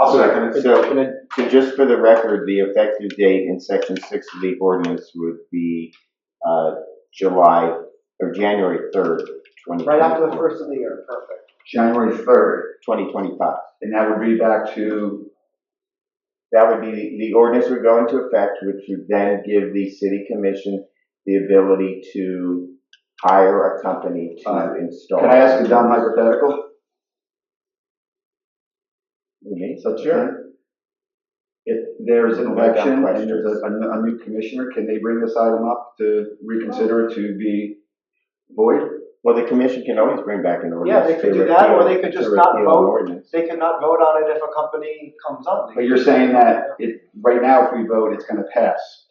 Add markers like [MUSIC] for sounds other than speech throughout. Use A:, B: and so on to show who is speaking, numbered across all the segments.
A: I'll second it.
B: So,
C: Can I-
B: so just for the record, the effective date in section six of the ordinance would be, uh, July, or January third, twenty
C: Right after the
B: twenty-four,
C: first of the year, perfect.
A: January third,
B: twenty twenty-five.
A: and that would be back to,
B: That would be, the- the ordinance would go into effect, which would then give the city commission the ability to hire a company to
A: Uh,
B: install.
A: can I ask a dumb hypothetical?
B: Me?
A: So Chair, if there is an
B: No dumb
A: election and
B: questions.
A: there's a, a- a new commissioner, can they bring this item up to reconsider it to be void?
B: Well, the commission can always bring back an ordinance.
C: they could
B: to
C: do that, or
B: repeal-
C: they could
B: to
C: just not
B: repeal an
C: vote.
B: ordinance.
C: They cannot vote on it if a company comes up.
A: But you're saying that it, right now, if we vote, it's gonna pass?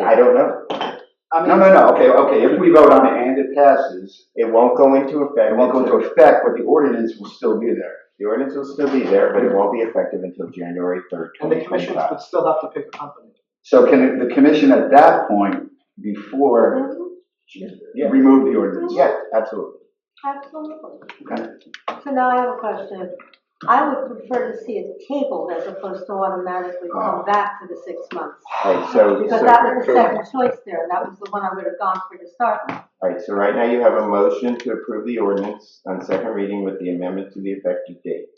B: I don't know.
C: I mean,
A: No, no, no, okay, okay, if we vote on it and it passes,
B: It won't go into effect.
A: it won't go into effect, but the ordinance will still be there.
B: The ordinance will still be there, but it won't be effective until January third,
C: And the
B: twenty
C: commissions
B: twenty-five.
C: would still have to pick a company.
A: So can the commission at that point, before,
B: Yeah.
A: remove the ordinance?
B: Yes, absolutely.
D: Absolutely.
A: Okay.
D: So now I have a question. I would prefer to see it tabled as opposed to automatically
B: Oh.
D: come back to the six months.
B: Alright, so,
D: Because
B: so,
D: that was the second choice there, and that was the one I would have gone for to start with.
B: alright, so right now you have a motion to approve the ordinance on second reading with the amendment to the effective date.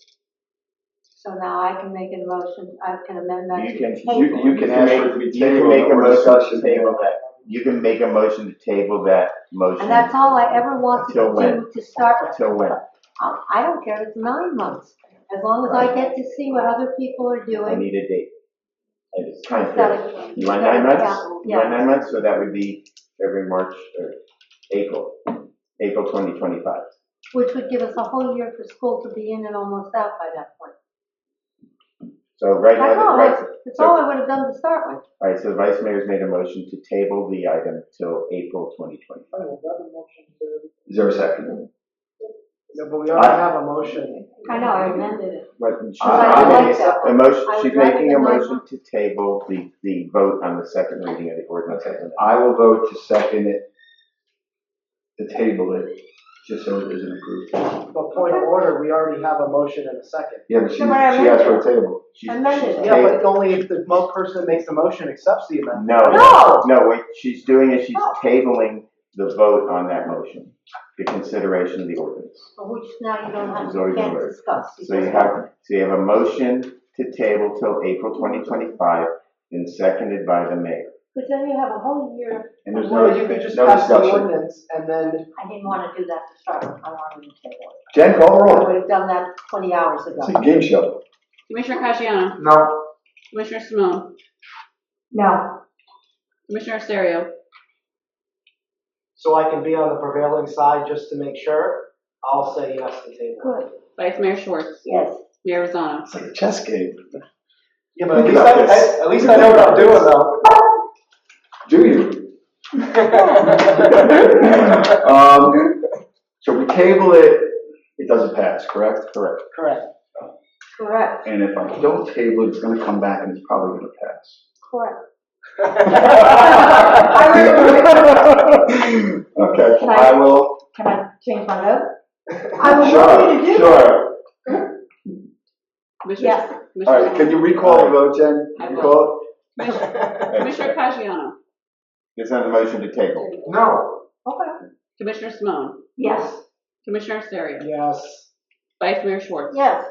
D: So now I can make a motion, I can amend that
B: You
D: to
B: can,
D: table.
A: You- you can ask for it to be
B: make, you can
A: tabled
B: make a
A: or
B: motion to
A: discussed.
B: table that. You can make a motion to table that motion
D: And that's all I ever wanted
B: Till
D: to
B: when?
D: do to start with.
B: till when?
D: Um, I don't care, if it's nine months, as long as I get to see what other people are
B: I
D: doing.
B: need a date. And it's time
D: instead
B: period.
D: of-
B: You want
D: instead
B: nine
D: of
B: months?
D: capital,
B: You want
D: Yeah,
B: nine months, so that would be every March or April, April twenty twenty-five.
D: which would give us a whole year for school to be in and almost out by that point.
B: So right now,
D: That's
B: the
D: all,
B: right,
D: I- that's all I would have done to start with.
B: All right, so the vice mayor's made a motion to table the item till April twenty twenty-five.
A: Is there a second?
C: No, but we already have a motion.
D: I know, I amended it.
A: I
D: like that
B: A
D: one. I
B: motion,
D: would
B: she's
D: rather
B: making a
D: than my-
B: motion to table the, the vote on the second reading of the ordinance.
A: Okay, I will vote to second it, to table it, just so it isn't approved.
C: But point of order, we already have a motion and a second.
A: Yeah, but she, she
D: No, but I
A: asked for a
D: amended
A: table.
B: She's-
D: Amended.
B: she's
C: Yeah,
B: ta-
C: but only if the mo- person that makes the motion accepts the amendment.
B: No,
D: No!
B: no, what she's doing is she's
D: No.
B: tabling the vote on that motion, the consideration of the ordinance.
D: Which now you don't have,
B: It's
D: you
B: already
D: can't
B: voted.
D: discuss.
B: So you have, so you have a motion to table till April twenty twenty-five and seconded by the mayor.
D: But then you have a whole year,
A: And there's no,
C: Or you could just
A: no
C: pass the
A: discussion.
C: ordinance and then,
D: I didn't want to do that to start with, I wanted to table it.
A: Jen, call the
B: Oh.
D: I
A: roll.
D: would have done that twenty hours ago.
A: It's a game show.
E: Commissioner Casciano,
C: no,
E: Commissioner Simone,
D: No,
E: Commissioner Serio,
C: so I can be on the prevailing side just to make sure, I'll say yes to table.
D: good,
E: Vice Mayor Schwartz,
D: yes.
E: Mayor Rosano.
A: It's like a chess game.
C: Yeah, but at
A: Think
C: least I,
A: about this.
C: I- at least I know what I'm doing though.
A: [LAUGHS] Do you? [LAUGHS]
C: Correct.
A: Um, so we table it, it doesn't pass, correct? Correct.
C: [LAUGHS]
D: Correct,
A: And if I don't table it, it's gonna come back and it's probably gonna pass. [LAUGHS]
D: correct.
A: Okay,
D: Can I-
A: I will.
D: Can I change my vote? I would love you to
A: Sure,
D: do that.
A: sure.
E: Commissioner-
D: Yes,
A: All right, can
E: Commissioner
A: you recall the vote, Jen?
E: I will.
A: Recall?
E: Commissioner Casciano,
B: It's on the motion to table.
C: [LAUGHS] No,
D: okay,
E: Commissioner Simone,
D: yes,
E: Commissioner Serio,
C: yes,
E: Vice Mayor Schwartz,
D: yes.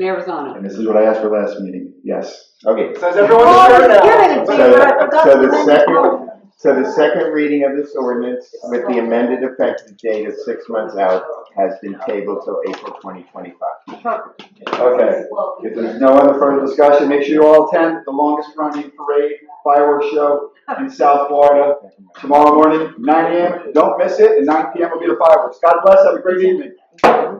E: Mayor Rosano.
A: And this is what I asked for last meeting, yes.
B: Okay,
C: so is everyone
D: Oh, I
C: sure
D: was
C: now?
D: giving it to
B: So-
D: you, but I forgot
B: so
D: to
B: the
D: amend Oh.
B: second-
D: motion.
B: So the second reading of this ordinance with the amended effective date of six months out has been tabled till April twenty twenty-five.
A: Okay, if there's no other further discussion, make sure you all attend the longest running parade fireworks show in South Florida tomorrow morning, nine AM. Don't miss it, and nine PM will be the fireworks. God bless, have a great evening.